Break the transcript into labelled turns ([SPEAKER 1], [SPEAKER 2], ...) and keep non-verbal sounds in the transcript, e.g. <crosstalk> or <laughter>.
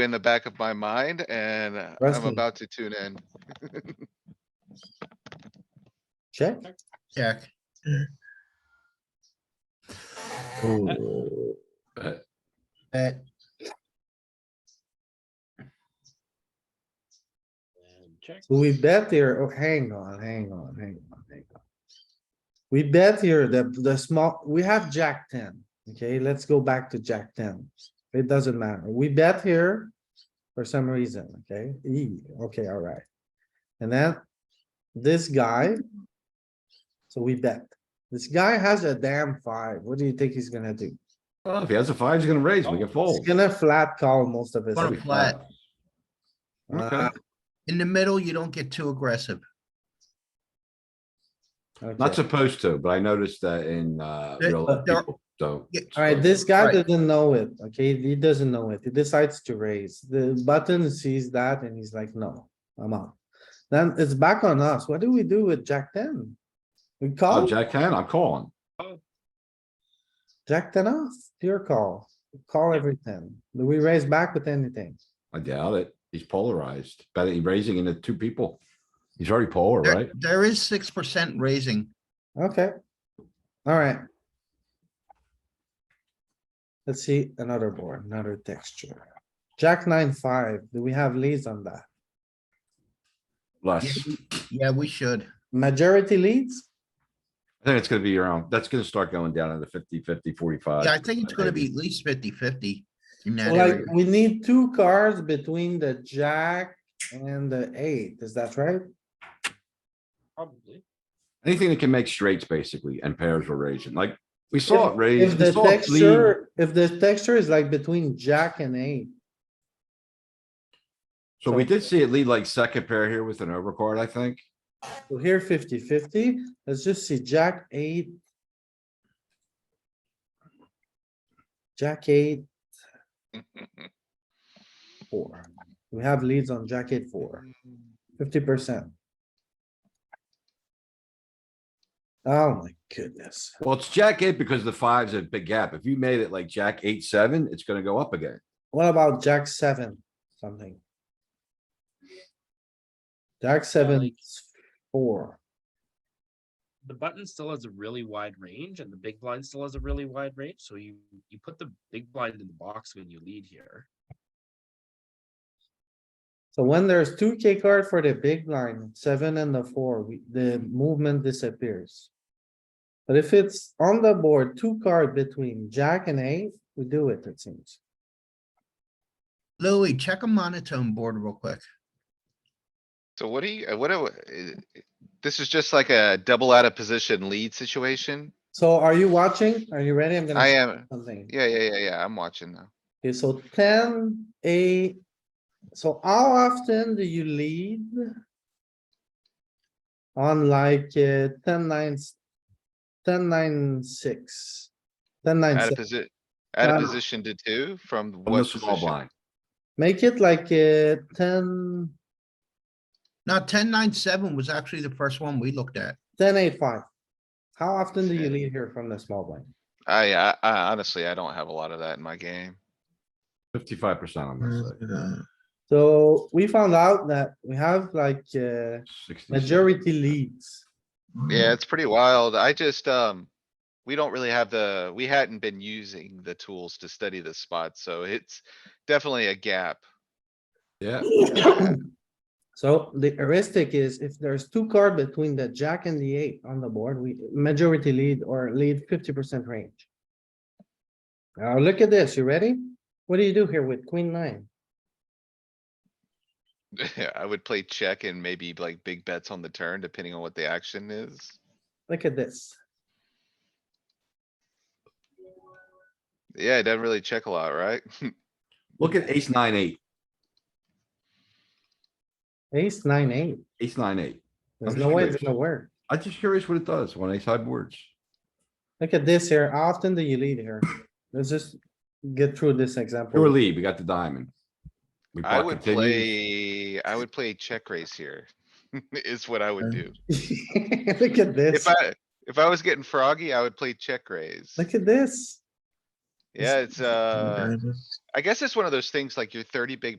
[SPEAKER 1] in the back of my mind and uh, I'm
[SPEAKER 2] Wrestling.
[SPEAKER 1] about to tune in.
[SPEAKER 2] Check.
[SPEAKER 3] Check.
[SPEAKER 2] Ooh,
[SPEAKER 4] But
[SPEAKER 3] Bet.
[SPEAKER 5] Check.
[SPEAKER 2] So we bet here, oh, hang on, hang on, hang on, hang on. We bet here that the small, we have jack ten, okay, let's go back to jack ten. It doesn't matter, we bet here for some reason, okay, E, okay, alright. And then this guy. So we bet, this guy has a damn five, what do you think he's gonna do?
[SPEAKER 4] well, if he has a five, he's gonna raise. We can
[SPEAKER 2] He's
[SPEAKER 4] fold.
[SPEAKER 2] gonna flat call most of his.
[SPEAKER 4] That'll
[SPEAKER 3] Bottom
[SPEAKER 4] be
[SPEAKER 3] flat.
[SPEAKER 4] Okay,
[SPEAKER 3] In the middle, you don't get too aggressive.
[SPEAKER 4] not supposed to, but I noticed that in, uh,
[SPEAKER 3] There-
[SPEAKER 4] real
[SPEAKER 3] there-
[SPEAKER 4] life, people don't.
[SPEAKER 3] Yeah,
[SPEAKER 4] It's
[SPEAKER 2] Alright,
[SPEAKER 4] like-
[SPEAKER 2] this guy
[SPEAKER 3] Right.
[SPEAKER 2] doesn't know it, okay? He doesn't know it. He decides to raise. The button sees that and he's like, no, I'm out. Then it's back on us. What do we do with Jack ten? We
[SPEAKER 4] Oh,
[SPEAKER 2] call,
[SPEAKER 4] Jack ten, I'm calling.
[SPEAKER 2] Jack ten off, your call. Call everything. Do we raise back with anything?
[SPEAKER 4] I doubt it. He's polarized. Better he raising into two people. He's already polar,
[SPEAKER 3] There-
[SPEAKER 4] right?
[SPEAKER 3] There is six percent raising.
[SPEAKER 2] Okay. Alright. Let's see another board, another texture. Jack nine, five. Do we have leads on that?
[SPEAKER 4] Less.
[SPEAKER 3] Yeah, we- Yeah, we should.
[SPEAKER 2] Majority leads?
[SPEAKER 4] I think it's gonna be around, that's gonna start going down into 50, 50, 45.
[SPEAKER 3] Yeah, I think it's gonna be
[SPEAKER 4] maybe.
[SPEAKER 3] at least 50-50 in that
[SPEAKER 2] Like,
[SPEAKER 3] area.
[SPEAKER 2] we need two cards between the jack and the eight, is that right?
[SPEAKER 5] Probably.
[SPEAKER 4] Anything that can make straights basically and pairs were raising, like, we
[SPEAKER 2] If-
[SPEAKER 4] saw it raise.
[SPEAKER 2] If
[SPEAKER 4] we
[SPEAKER 2] the
[SPEAKER 4] saw it lead.
[SPEAKER 2] texture, if the texture is like between jack and eight,
[SPEAKER 4] So we did see it lead like second pair here with an overcard, I think.
[SPEAKER 2] so here 50 50 let's just see jack eight. Jack eight. Four, we have leads on jack eight four. Fifty percent. Oh my goodness.
[SPEAKER 4] Well, it's jack eight because the five's a big gap. If you made it like jack eight, seven, it's gonna go up again.
[SPEAKER 2] What about jack seven, something? Jack seven,
[SPEAKER 5] like-
[SPEAKER 2] four,
[SPEAKER 5] The button still has a really wide range and the big blind still has a really wide range, so you, you put the big blind in the box when you lead here.
[SPEAKER 2] so when there's two K card for the big line, seven and the four, we, the movement disappears. But if it's on the board, two card between jack and eight, we do it, it seems.
[SPEAKER 3] Louis, check a monotone board real quick.
[SPEAKER 1] So what do you, uh, what, do- uh, this is just like a double out of position lead situation?
[SPEAKER 2] So are you watching? Are you ready? I'm gonna.
[SPEAKER 1] I
[SPEAKER 2] say
[SPEAKER 1] am,
[SPEAKER 2] Something.
[SPEAKER 1] yeah, yeah, yeah, yeah, I'm watching now.
[SPEAKER 2] Okay, so ten, eight. So how often do you lead? On like uh, ten nines, ten nine six, ten nine
[SPEAKER 1] Out of
[SPEAKER 2] six,
[SPEAKER 1] position, out of
[SPEAKER 2] Um,
[SPEAKER 1] position to two from
[SPEAKER 4] From the
[SPEAKER 1] what
[SPEAKER 4] small
[SPEAKER 1] position?
[SPEAKER 4] blind.
[SPEAKER 2] make it like uh, ten,
[SPEAKER 3] Now, ten, nine, seven was actually the first one we looked at.
[SPEAKER 2] ten eight five. How often do you
[SPEAKER 1] Shit.
[SPEAKER 2] lead here from the small blind?
[SPEAKER 1] I, I, I honestly, I don't have a lot of that in my game.
[SPEAKER 4] Fifty-five percent, I'm gonna say.
[SPEAKER 2] So we found out that we have like uh,
[SPEAKER 4] 60.
[SPEAKER 2] majority leads.
[SPEAKER 4] Mm.
[SPEAKER 1] Yeah, it's pretty wild. I just, um, we don't really have the, we hadn't been using the tools to study this spot, so it's definitely a
[SPEAKER 2] <coughs>
[SPEAKER 1] gap.
[SPEAKER 4] Yeah,
[SPEAKER 2] So the heuristic is if there's two card between the jack and the eight on the board, we majority lead or lead fifty percent range. Now look at this, you ready? What do you do here with queen nine?
[SPEAKER 1] <laughs> I would play check and maybe like big bets on the turn, depending on what the action is.
[SPEAKER 2] Look at this.
[SPEAKER 1] Yeah, it doesn't really check a lot, right?
[SPEAKER 4] look at ace nine, eight,
[SPEAKER 2] Ace nine, eight.
[SPEAKER 4] ace nine, eight.
[SPEAKER 2] There's
[SPEAKER 4] I'm
[SPEAKER 2] no way it's
[SPEAKER 4] serious.
[SPEAKER 2] gonna work.
[SPEAKER 4] I'm just curious what it does when ace high boards.
[SPEAKER 2] Look at this here. How often do you lead here? Let's just get through this example.
[SPEAKER 4] Pure lead, we got the diamond. We
[SPEAKER 1] I
[SPEAKER 4] block
[SPEAKER 1] would
[SPEAKER 4] continues.
[SPEAKER 1] play, I would play check raise here. <laughs> Is what I would
[SPEAKER 3] Okay.
[SPEAKER 1] do.
[SPEAKER 2] <laughs> Look at this.
[SPEAKER 1] If I, if I was getting froggy, I would play check raise.
[SPEAKER 2] Look at this.
[SPEAKER 4] <laughs>
[SPEAKER 1] Yeah, it's, uh, I guess it's one of those things like your thirty big